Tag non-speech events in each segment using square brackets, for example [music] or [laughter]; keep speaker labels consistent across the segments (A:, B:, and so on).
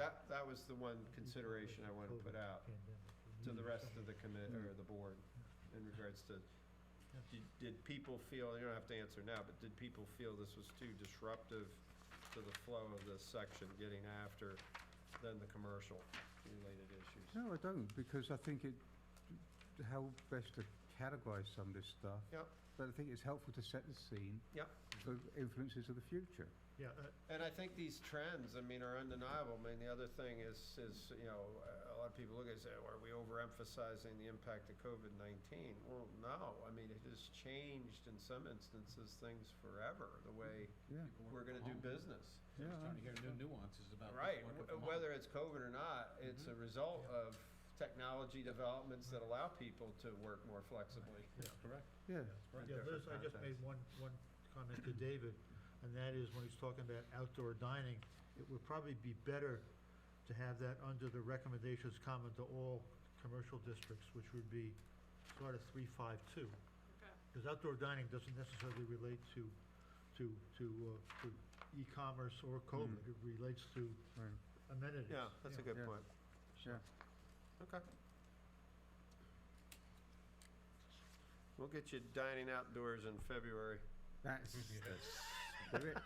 A: that, that was the one consideration I wanted to put out to the rest of the commit, or the board in regards to, did- did people feel, you don't have to answer now, but did people feel this was too disruptive to the flow of this section, getting after then the commercial related issues?
B: No, I don't, because I think it, how best to categorize some of this stuff.
A: Yep.
B: But I think it's helpful to set the scene.
A: Yep.
B: For influences of the future.
C: Yeah, uh,
A: And I think these trends, I mean, are undeniable. I mean, the other thing is, is, you know, a lot of people look at it and say, "Oh, are we overemphasizing the impact of COVID-19? Well, no, I mean, it has changed in some instances things forever, the way
B: Yeah,
A: we're gonna do business.
B: yeah.
D: Just trying to hear new nuances about.
A: Right,
D: working
A: w-
D: from home. Mm-hmm.
A: whether it's COVID or not, it's a result of technology developments that allow people to work more flexibly.
D: Correct.
B: Yeah,
D: Right.
C: yeah, Liz, I just made one, one comment to David, and that is when he's talking about outdoor dining, it would probably be better to have that under the recommendations common to all commercial districts, which would be sort of three, five, two.
E: Okay.
C: Because outdoor dining doesn't necessarily relate to, to, to, uh, to e-commerce or COVID,
B: Mm.
C: it relates to
B: right,
C: amenities.
A: Yeah, that's a good
B: Yeah.
A: point.
B: yeah.
A: Okay. We'll get you dining outdoors in February.
B: That's the spirit.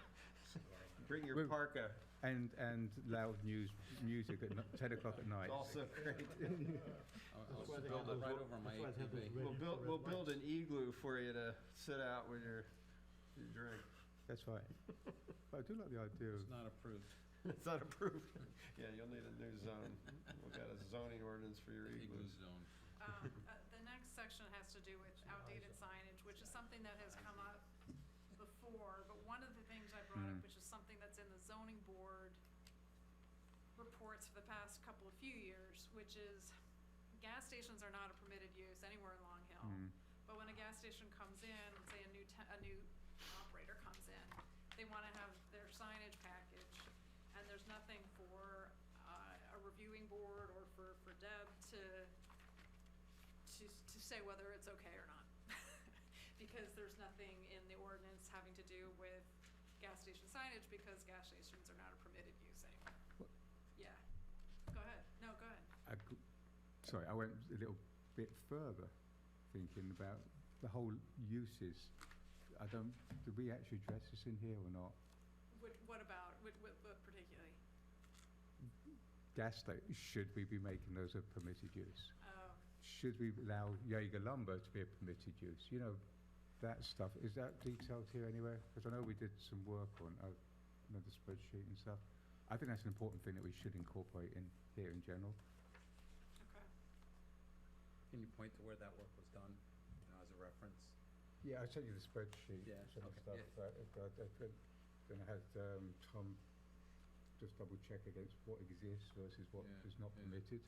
A: Bring your
B: Wait.
A: parka.
B: And, and loud news, music at n- ten o'clock at night.
A: It's also [laughs] great.
D: I'll- I'll
C: That's why
D: just
C: they have
D: build it
C: those
D: right
C: ro-
D: over my
C: that's why they have those
D: ATV.
C: red-
A: We'll build,
C: red
A: we'll build
C: lights.
A: an igloo for you to sit out with your, your drink. [laughs]
B: That's right. But I do like the idea of,
D: It's not approved.
A: It's not approved. [laughs] Yeah, you'll need a new zone. We've got a zoning ordinance for your
D: Igloo
A: igloos.
D: zone.
E: Um, uh, The next section has to do with outdated signage, which is something that has come up before, but one of the things I brought
B: Mm.
E: up, which is something that's in the zoning board reports for the past couple of few years, which is gas stations are not a permitted use anywhere in Long Hill.
B: mm,
E: But when a gas station comes in, say a new te- a new operator comes in, they wanna have their signage package, and there's nothing for, uh, a reviewing board or for, for Deb to, to, to say whether it's okay or not. [laughs] Because there's nothing in the ordinance having to do with gas station signage, because gas stations are not a permitted use anymore.
B: What?
E: Yeah, go ahead, no, go ahead.
B: I g- sorry, I went a little bit further thinking about the whole uses. I don't, did we actually address this in here or not?
E: What, what about, what, what what particularly?
B: Gas sta- should we be making those a permitted use?
E: Oh,
B: Should we allow Jaeger lumber to be a permitted use? You know, that stuff, is that detailed here anywhere? Because I know we did some work on, uh, another spreadsheet and stuff. I think that's an important thing that we should incorporate in here in general.
E: okay.
D: Can you point to where that work was done, you know, as a reference?
B: Yeah, I sent you the spreadsheet,
D: Yeah,
B: some of
D: okay,
B: the stuff,
D: yeah.
B: but I, I could, then I had, um, Tom just double check against what exists versus what
D: Yeah,
B: is not
D: yeah.
B: permitted.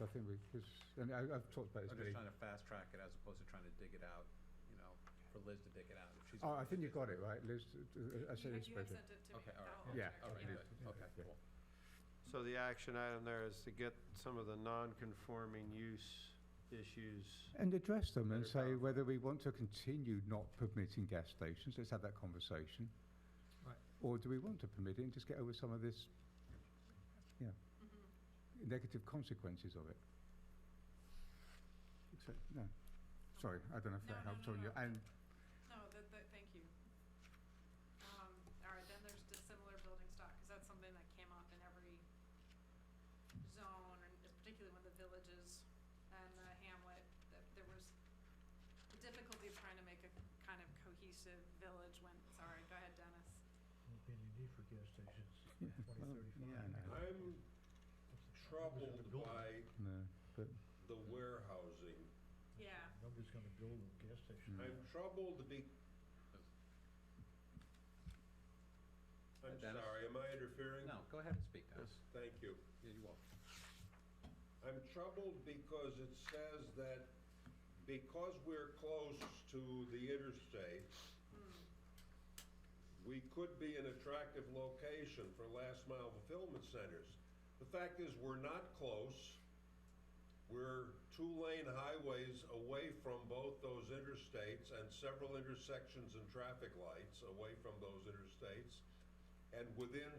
B: So I think we, cause, and I, I've talked about this
D: I'm
B: many
D: just trying to fast track it as opposed to trying to dig it out, you know, for Liz to dig it out if she's.
B: Oh, I think you got it right, Liz, uh, I
E: You
B: said
E: had-
B: it's
E: You had
B: better.
E: sent it to me.
D: Okay, all right.
E: I'll- I'll
B: Yeah,
E: check it,
D: All right,
E: yeah.
D: good, okay,
B: Yeah.
D: cool.
A: So the action item there is to get some of the non-conforming use issues.
B: And address them and
A: Better
B: say
A: balance.
B: whether we want to continue not permitting gas stations, let's have that conversation.
C: Right.
B: Or do we want to permit it and just get over some of this
E: Mhm.
B: negative consequences of it? Except, no, sorry, I don't know if
E: No,
B: that
E: no,
B: helps
E: no,
B: on you,
E: no.
B: and
E: No, that, that, thank you. Um, all right, then there's dissimilar building stock, cause that's something that came up in every zone, and particularly when the villages and the hamlet, that there was the difficulty of trying to make a kind of cohesive village when, sorry, go ahead, Dennis.
C: Won't be any need for gas [laughs] stations
B: Yeah,
C: in twenty
B: well,
C: thirty-five.
B: yeah, I know.
F: I'm troubled by
B: No, but
F: the warehousing.
E: Yeah,
C: Nobody's gonna build a gas station.
B: Mm.
F: I'm troubled be. I'm
D: Dennis?
F: sorry, am I interfering?
D: No, go ahead and speak, Dennis.
F: Thank you.
D: Yeah, you will.
F: I'm troubled because it says that because we're close to the interstate, we could be an attractive location for last mile fulfillment centers. The fact is, we're not close. We're two-lane highways away from both those interstates and several intersections and traffic lights away from those interstates. And within